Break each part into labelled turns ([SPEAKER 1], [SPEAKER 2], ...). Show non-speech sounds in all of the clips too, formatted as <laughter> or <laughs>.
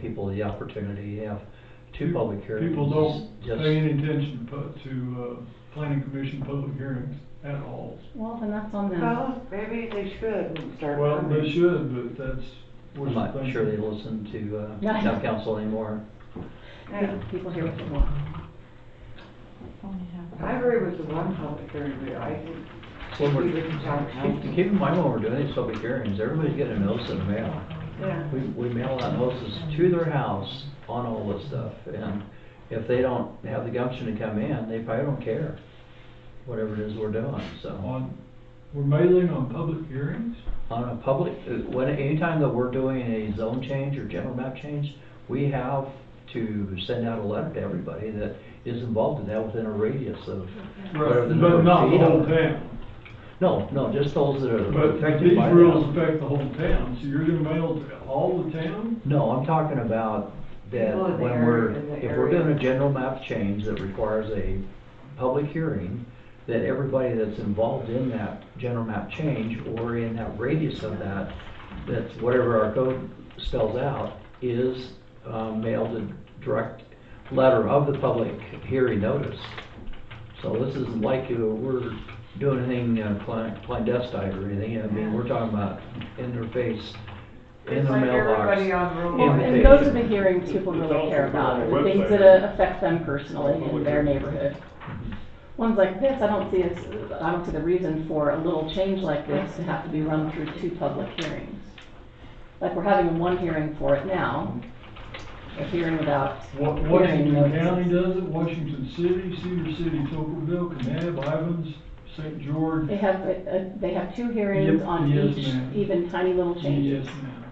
[SPEAKER 1] people the opportunity to have two
[SPEAKER 2] Pe-
[SPEAKER 1] public hearings.
[SPEAKER 2] People don't
[SPEAKER 1] Just-
[SPEAKER 2] pay any attention pu- to, uh, planning commission public hearings at all.
[SPEAKER 3] Well, then that's on them.
[SPEAKER 4] Well, maybe they should and start.
[SPEAKER 2] Well,
[SPEAKER 4] coming.
[SPEAKER 2] they should, but that's. what
[SPEAKER 1] I'm not
[SPEAKER 2] they-
[SPEAKER 1] sure they listen to, uh,
[SPEAKER 3] Yeah.
[SPEAKER 1] town council anymore.
[SPEAKER 4] Yeah.
[SPEAKER 3] People hear what they want.
[SPEAKER 4] I agree with the one public hearing, but I think
[SPEAKER 1] When
[SPEAKER 4] we
[SPEAKER 1] we're-
[SPEAKER 4] didn't have
[SPEAKER 1] Keep
[SPEAKER 4] council.
[SPEAKER 1] keep in mind when we're doing these public hearings, everybody's getting a notice in the mail.
[SPEAKER 4] Yeah.
[SPEAKER 1] We, we mail out notices to their house on all this stuff, and if they don't have the gumption to come in, they probably don't care, whatever it is we're doing, so.
[SPEAKER 2] On, we're mailing on public hearings?
[SPEAKER 1] On a public, when, anytime that we're doing a zone change or general map change, we have to send out a letter to everybody that is involved in that within a radius of whatever the number
[SPEAKER 2] But
[SPEAKER 1] of
[SPEAKER 2] not the
[SPEAKER 1] feet
[SPEAKER 2] whole
[SPEAKER 1] are.
[SPEAKER 2] town.
[SPEAKER 1] No, no, just those that are
[SPEAKER 2] But
[SPEAKER 1] affected
[SPEAKER 2] these
[SPEAKER 1] by that.
[SPEAKER 2] rules affect the whole town, so you're gonna mail to all the town?
[SPEAKER 1] No, I'm talking about that
[SPEAKER 4] People in the
[SPEAKER 1] when
[SPEAKER 4] area-
[SPEAKER 1] we're,
[SPEAKER 4] in the
[SPEAKER 1] if we're doing
[SPEAKER 4] area.
[SPEAKER 1] a general map change that requires a public hearing, that everybody that's involved in that general map change or in that radius of that, that's whatever our code spells out, is um, mailed a direct letter of the public hearing notice. So this isn't like uh, we're doing anything uh, clan- clandestine or anything, I mean, we're talking about in their face, in
[SPEAKER 4] It's
[SPEAKER 1] their
[SPEAKER 4] like
[SPEAKER 1] mailbox.
[SPEAKER 4] everybody on Route
[SPEAKER 3] Well,
[SPEAKER 1] Yeah,
[SPEAKER 4] One.
[SPEAKER 1] they-
[SPEAKER 3] and those are the hearings people really care about, the things that uh, affect them personally in their neighborhood. Ones like this, I don't see as, I don't see the reason for a little change like this to have to be run through two public hearings. Like, we're having one hearing for it now, a hearing without
[SPEAKER 2] Wa-
[SPEAKER 3] hearing
[SPEAKER 2] Washington County
[SPEAKER 3] notices.
[SPEAKER 2] does it, Washington City, Cedar City, Tocqueville, Canab, Ivans, St. George.
[SPEAKER 3] They have, uh, they have two hearings
[SPEAKER 2] Yep,
[SPEAKER 3] on
[SPEAKER 2] yes,
[SPEAKER 3] each,
[SPEAKER 2] ma'am.
[SPEAKER 3] even tiny little
[SPEAKER 2] Yes,
[SPEAKER 3] changes.
[SPEAKER 2] ma'am.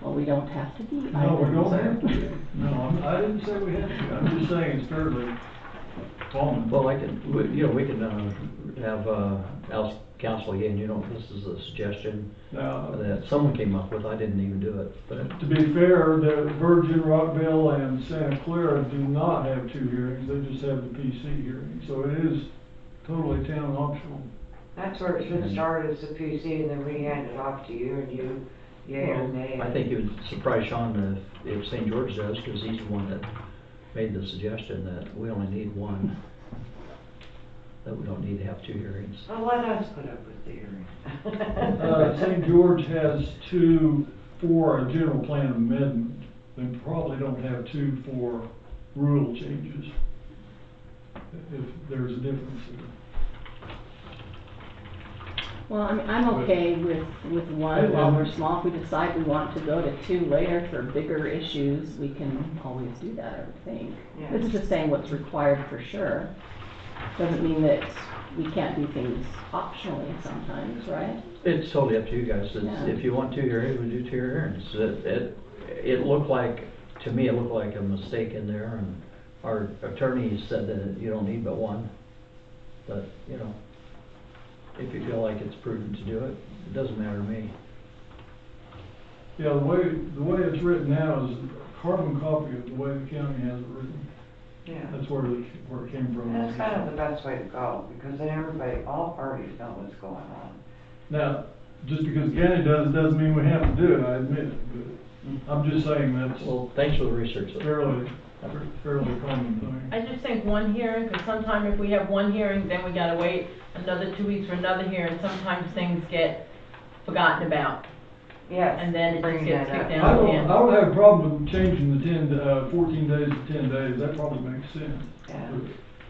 [SPEAKER 3] Well, we don't have to be.
[SPEAKER 2] No, we
[SPEAKER 3] either,
[SPEAKER 2] don't
[SPEAKER 3] sir.
[SPEAKER 2] have to. No, I'm- I didn't say we had to. I'm just saying it's fairly common.
[SPEAKER 1] Well, I could, we- you know, we can uh, have, uh, als- council again, you know, this is a suggestion
[SPEAKER 2] Now,
[SPEAKER 1] that someone came up with, I didn't even do it, but
[SPEAKER 2] to be fair, the Virgin, Rockville, and Santa Clara do not have two hearings. They just have the PC hearing. So it is totally town optional.
[SPEAKER 4] That's where it
[SPEAKER 1] Mm-hmm.
[SPEAKER 4] should start as the PC and then we hand it off to you and you, yay or nay.
[SPEAKER 1] I think it would surprise Sean if, if St. George does, because he's the one that made the suggestion that we only need one. That we don't need to have two hearings.
[SPEAKER 4] Well, let us put up with the hearing.
[SPEAKER 2] Uh, St. George has two for a general plan amendment. They probably don't have two for rule changes. If there's a difference there.
[SPEAKER 3] <laughs> Well, I'm, I'm okay with, with one while we're small. If we decide we want to go to two later for bigger issues, we can always do that, I would think.
[SPEAKER 4] Yeah.
[SPEAKER 3] This is just saying what's required for sure. Doesn't mean that we can't do things optionally sometimes, right?
[SPEAKER 1] It's totally up to you guys, It's-
[SPEAKER 3] Yeah.
[SPEAKER 1] if you want two hearings, we do two hearings. It, it, it looked like, to me, it looked like a mistake in there, and our attorney said that you don't need but one. But, you know, if you feel like it's prudent to do it, it doesn't matter to me.
[SPEAKER 2] Yeah, the way, the way it's written now is a carbon copy of the way the county has it written.
[SPEAKER 4] <laughs> Yeah.
[SPEAKER 2] That's where it, where it came from.
[SPEAKER 4] That's kind of the best way to go, because then everybody, all parties know what's going on.
[SPEAKER 2] Now, just because the county does, it doesn't mean we have to do it, I admit it, but I'm just saying that's
[SPEAKER 1] Well, thanks for the research. though.
[SPEAKER 2] fairly, fairly common thing.
[SPEAKER 5] I just think one hearing, because sometime if we have one hearing, then we gotta wait another two weeks for another hearing. Sometimes things get forgotten about,
[SPEAKER 4] Yes.
[SPEAKER 5] and then it just
[SPEAKER 4] bringing
[SPEAKER 5] gets
[SPEAKER 4] that
[SPEAKER 5] kicked
[SPEAKER 4] up.
[SPEAKER 2] I
[SPEAKER 5] down
[SPEAKER 2] don't, I
[SPEAKER 5] again.
[SPEAKER 2] don't have a problem with changing the ten, to, uh, fourteen days to ten days, that probably makes sense.
[SPEAKER 4] Yeah.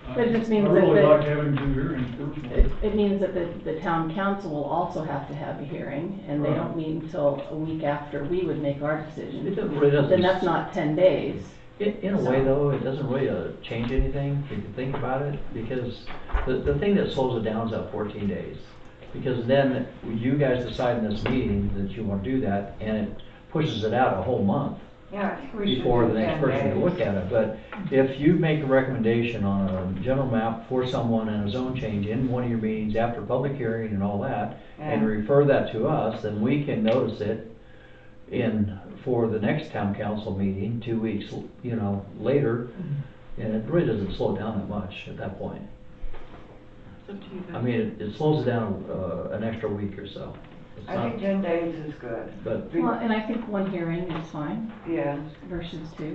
[SPEAKER 2] I-
[SPEAKER 3] But it just means
[SPEAKER 2] I
[SPEAKER 3] that
[SPEAKER 2] really
[SPEAKER 3] the-
[SPEAKER 2] like having two hearings,
[SPEAKER 3] It,
[SPEAKER 2] personally.
[SPEAKER 3] it means that the, the town council will also have to have a hearing, and they
[SPEAKER 2] Right.
[SPEAKER 3] don't meet until a week after we would make our
[SPEAKER 1] It
[SPEAKER 3] decision.
[SPEAKER 1] doesn't really, doesn't.
[SPEAKER 3] Then that's not ten days.
[SPEAKER 1] In, in a way though, it doesn't really uh, change anything, if you think about it, because the, the thing that slows it down is that fourteen days. Because then you guys decide in this meeting that you wanna do that, and it pushes it out a whole month
[SPEAKER 4] Yeah, I think we should.
[SPEAKER 1] before the
[SPEAKER 4] do
[SPEAKER 1] next
[SPEAKER 4] 10
[SPEAKER 1] person to
[SPEAKER 4] days.
[SPEAKER 1] look at it. But if you make a recommendation on a general map for someone and a zone change in one of your meetings after public hearing and all that, and
[SPEAKER 4] Yeah.
[SPEAKER 1] refer that to us, then we can notice it in, for the next town council meeting, two weeks, you know, later.
[SPEAKER 4] Mm-hmm.
[SPEAKER 1] And it really doesn't slow down that much at that point. I mean, it- it slows it down, uh, an extra week or so. It's
[SPEAKER 4] I think
[SPEAKER 1] not,
[SPEAKER 4] ten days is good.
[SPEAKER 1] but
[SPEAKER 3] Well, and I think one hearing is fine
[SPEAKER 4] Yeah.
[SPEAKER 3] versus two.